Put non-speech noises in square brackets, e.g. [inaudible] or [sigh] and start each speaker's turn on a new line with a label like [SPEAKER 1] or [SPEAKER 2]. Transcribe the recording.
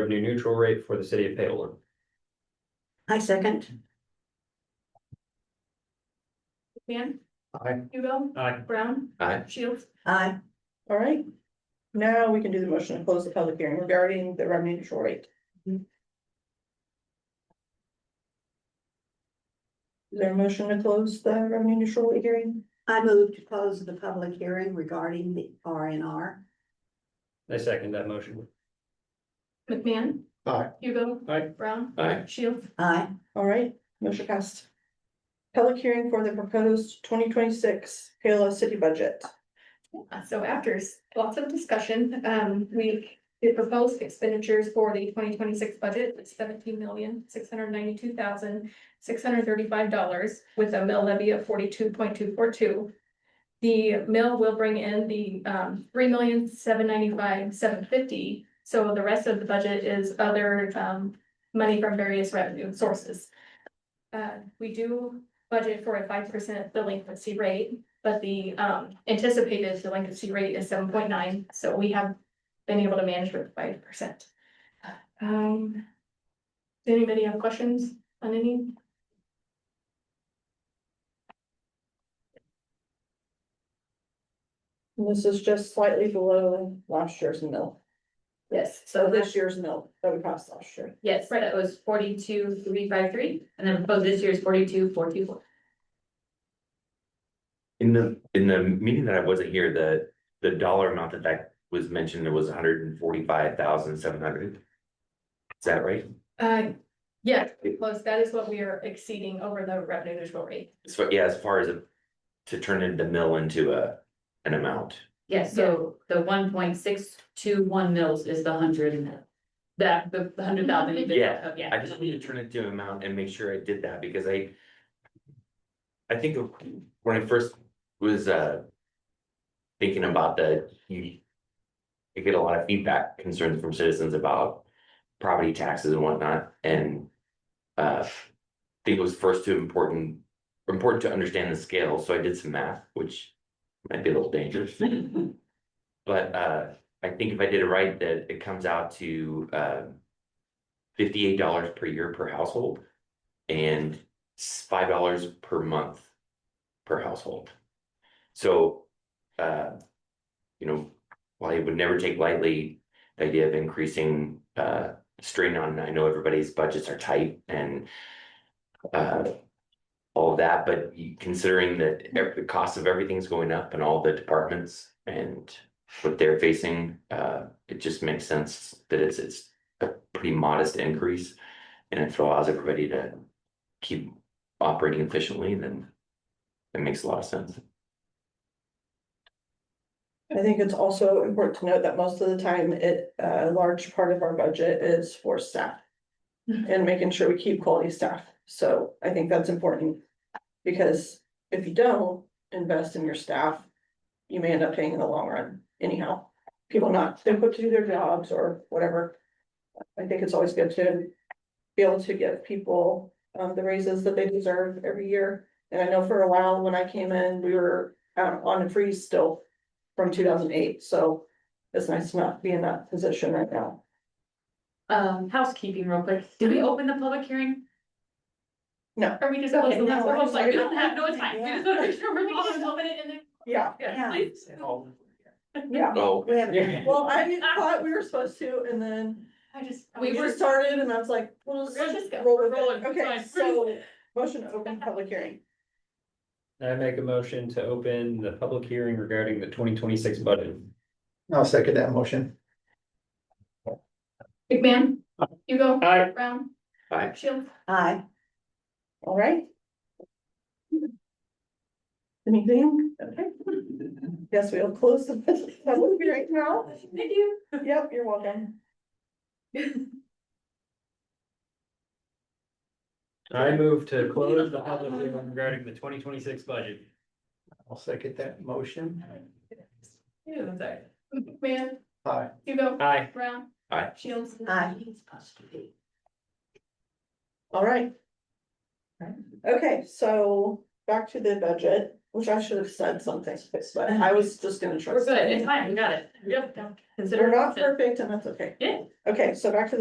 [SPEAKER 1] revenue neutral rate for the city of Payola.
[SPEAKER 2] I second.
[SPEAKER 3] Dan.
[SPEAKER 1] Aye.
[SPEAKER 3] Hugo.
[SPEAKER 1] Aye.
[SPEAKER 3] Brown.
[SPEAKER 1] Aye.
[SPEAKER 3] Shields.
[SPEAKER 2] Aye.
[SPEAKER 4] All right. Now we can do the motion to close the public hearing regarding the revenue neutral rate. Is there a motion to close the uh, revenue neutral rate hearing?
[SPEAKER 2] I move to close the public hearing regarding the R and R.
[SPEAKER 1] I second that motion.
[SPEAKER 3] McMahon.
[SPEAKER 1] Aye.
[SPEAKER 3] Hugo.
[SPEAKER 1] Aye.
[SPEAKER 3] Brown.
[SPEAKER 1] Aye.
[SPEAKER 3] Shields.
[SPEAKER 2] Aye.
[SPEAKER 4] All right, motion passed. Public hearing for the proposed twenty twenty-six Payola city budget.
[SPEAKER 3] So after s- lots of discussion, um, we, the proposed expenditures for the twenty twenty-six budget is seventeen million, six hundred ninety-two thousand, six hundred thirty-five dollars with a mill levy of forty-two point two four two. The mill will bring in the, um, three million, seven ninety-five, seven fifty. So the rest of the budget is other, um, money from various revenue sources. Uh, we do budget for a five percent delinquency rate. But the um anticipated delinquency rate is seven point nine, so we have been able to manage with five percent. Um. Does anybody have questions on any?
[SPEAKER 4] And This is just slightly below last year's mill,
[SPEAKER 5] Yes,
[SPEAKER 4] or
[SPEAKER 5] so this,
[SPEAKER 4] this year's mill that we passed last year.
[SPEAKER 5] yes, that was forty-two, three, five, three, and then proposed this year is forty-two, four, two, four.
[SPEAKER 6] In the, in the meeting that I wasn't here, the, the dollar amount that that was mentioned, it was hundred and forty-five thousand seven hundred. Is that right?
[SPEAKER 3] Uh, yeah, plus that is what we are exceeding over the revenue neutral rate.
[SPEAKER 6] So, yeah, as far as a- to turn in the mill into a, an amount.
[SPEAKER 5] Yes, so the one point six two one mils is the hundred and that, the the hundred thousand. you did
[SPEAKER 6] Yeah,
[SPEAKER 5] that, Yeah.
[SPEAKER 6] I just need to turn it to an amount and make sure I did that because I. I think of when I first was uh. Thinking about the, you. I get a lot of feedback concerns from citizens about property taxes and whatnot and. Uh, I think it was first too important, important to understand the scale, so I did some math, which might be a little dangerous.
[SPEAKER 5] [laughs]
[SPEAKER 6] But uh, I think if I did it right, that it comes out to uh fifty-eight dollars per year per household. And s- five dollars per month per household. So, uh, you know, while I would never take lightly the idea of increasing uh strain on, I know everybody's budgets are tight and uh all of that, but you- considering that ev- the cost of everything's going up and all the departments and what they're facing, uh, it just makes sense that it's it's a pretty modest increase. And if it allows everybody to keep operating efficiently, then it makes a lot of sense.
[SPEAKER 4] I think it's also important to note that most of the time it, a large part of our budget is for staff.
[SPEAKER 3] Mhm.
[SPEAKER 4] And making sure we keep quality staff, so I think that's important. Because if you don't invest in your staff, you may end up paying in the long run anyhow. People not equipped to do their jobs or whatever. I think it's always good to be able to give people um the raises that they deserve every year. And I know for a while when I came in, we were um on a freeze still from two thousand eight, so it's nice to not be in that position right now.
[SPEAKER 5] Um, housekeeping real quick, did we open the public hearing?
[SPEAKER 3] Are we just? close the
[SPEAKER 4] Okay,
[SPEAKER 3] last
[SPEAKER 4] no,
[SPEAKER 3] one? I was like,
[SPEAKER 4] I'm
[SPEAKER 3] we don't have [laughs] no
[SPEAKER 4] sorry.
[SPEAKER 3] time. We
[SPEAKER 4] Yeah.
[SPEAKER 3] just [laughs] wanna make sure we're following open it and then-
[SPEAKER 4] [laughs] Yeah,
[SPEAKER 3] Yeah,
[SPEAKER 2] Yeah.
[SPEAKER 3] please.
[SPEAKER 4] yeah.
[SPEAKER 6] Oh,
[SPEAKER 2] We have,
[SPEAKER 1] Yeah.
[SPEAKER 4] Well, I thought we were supposed to, and then
[SPEAKER 3] I just.
[SPEAKER 4] we were started, and I was like, well, let's
[SPEAKER 3] We're just go-
[SPEAKER 4] roll
[SPEAKER 3] we're
[SPEAKER 4] with it.
[SPEAKER 3] rolling,
[SPEAKER 4] Okay,
[SPEAKER 3] fine.
[SPEAKER 4] so, motion to open public hearing.
[SPEAKER 1] I make a motion to open the public hearing regarding the twenty twenty-six budget.
[SPEAKER 7] I'll second that motion.
[SPEAKER 3] McMahon. Hugo.
[SPEAKER 1] Aye.
[SPEAKER 3] Brown.
[SPEAKER 6] Aye.
[SPEAKER 3] Shields.
[SPEAKER 2] aye.
[SPEAKER 4] All right. Anything? Okay. Yes, we'll close the public hearing
[SPEAKER 3] [laughs]
[SPEAKER 4] now.
[SPEAKER 3] Thank you.
[SPEAKER 4] Yep, you're welcome.
[SPEAKER 1] I move to close the public hearing regarding the twenty twenty-six budget.
[SPEAKER 7] I'll second that motion.
[SPEAKER 5] Ew, I'm sorry.
[SPEAKER 3] McMahon.
[SPEAKER 7] Aye.
[SPEAKER 3] Hugo.
[SPEAKER 1] Aye.
[SPEAKER 3] Brown.
[SPEAKER 6] Aye.
[SPEAKER 3] Shields.
[SPEAKER 2] Aye.
[SPEAKER 4] All right. Okay, so back to the budget, which I should have said something, but I was just gonna try.
[SPEAKER 5] We're good, it's fine, we got it. Yep.
[SPEAKER 4] We're
[SPEAKER 5] Consider.
[SPEAKER 4] not perfect and that's okay.
[SPEAKER 5] Yeah.
[SPEAKER 4] Okay, so back to the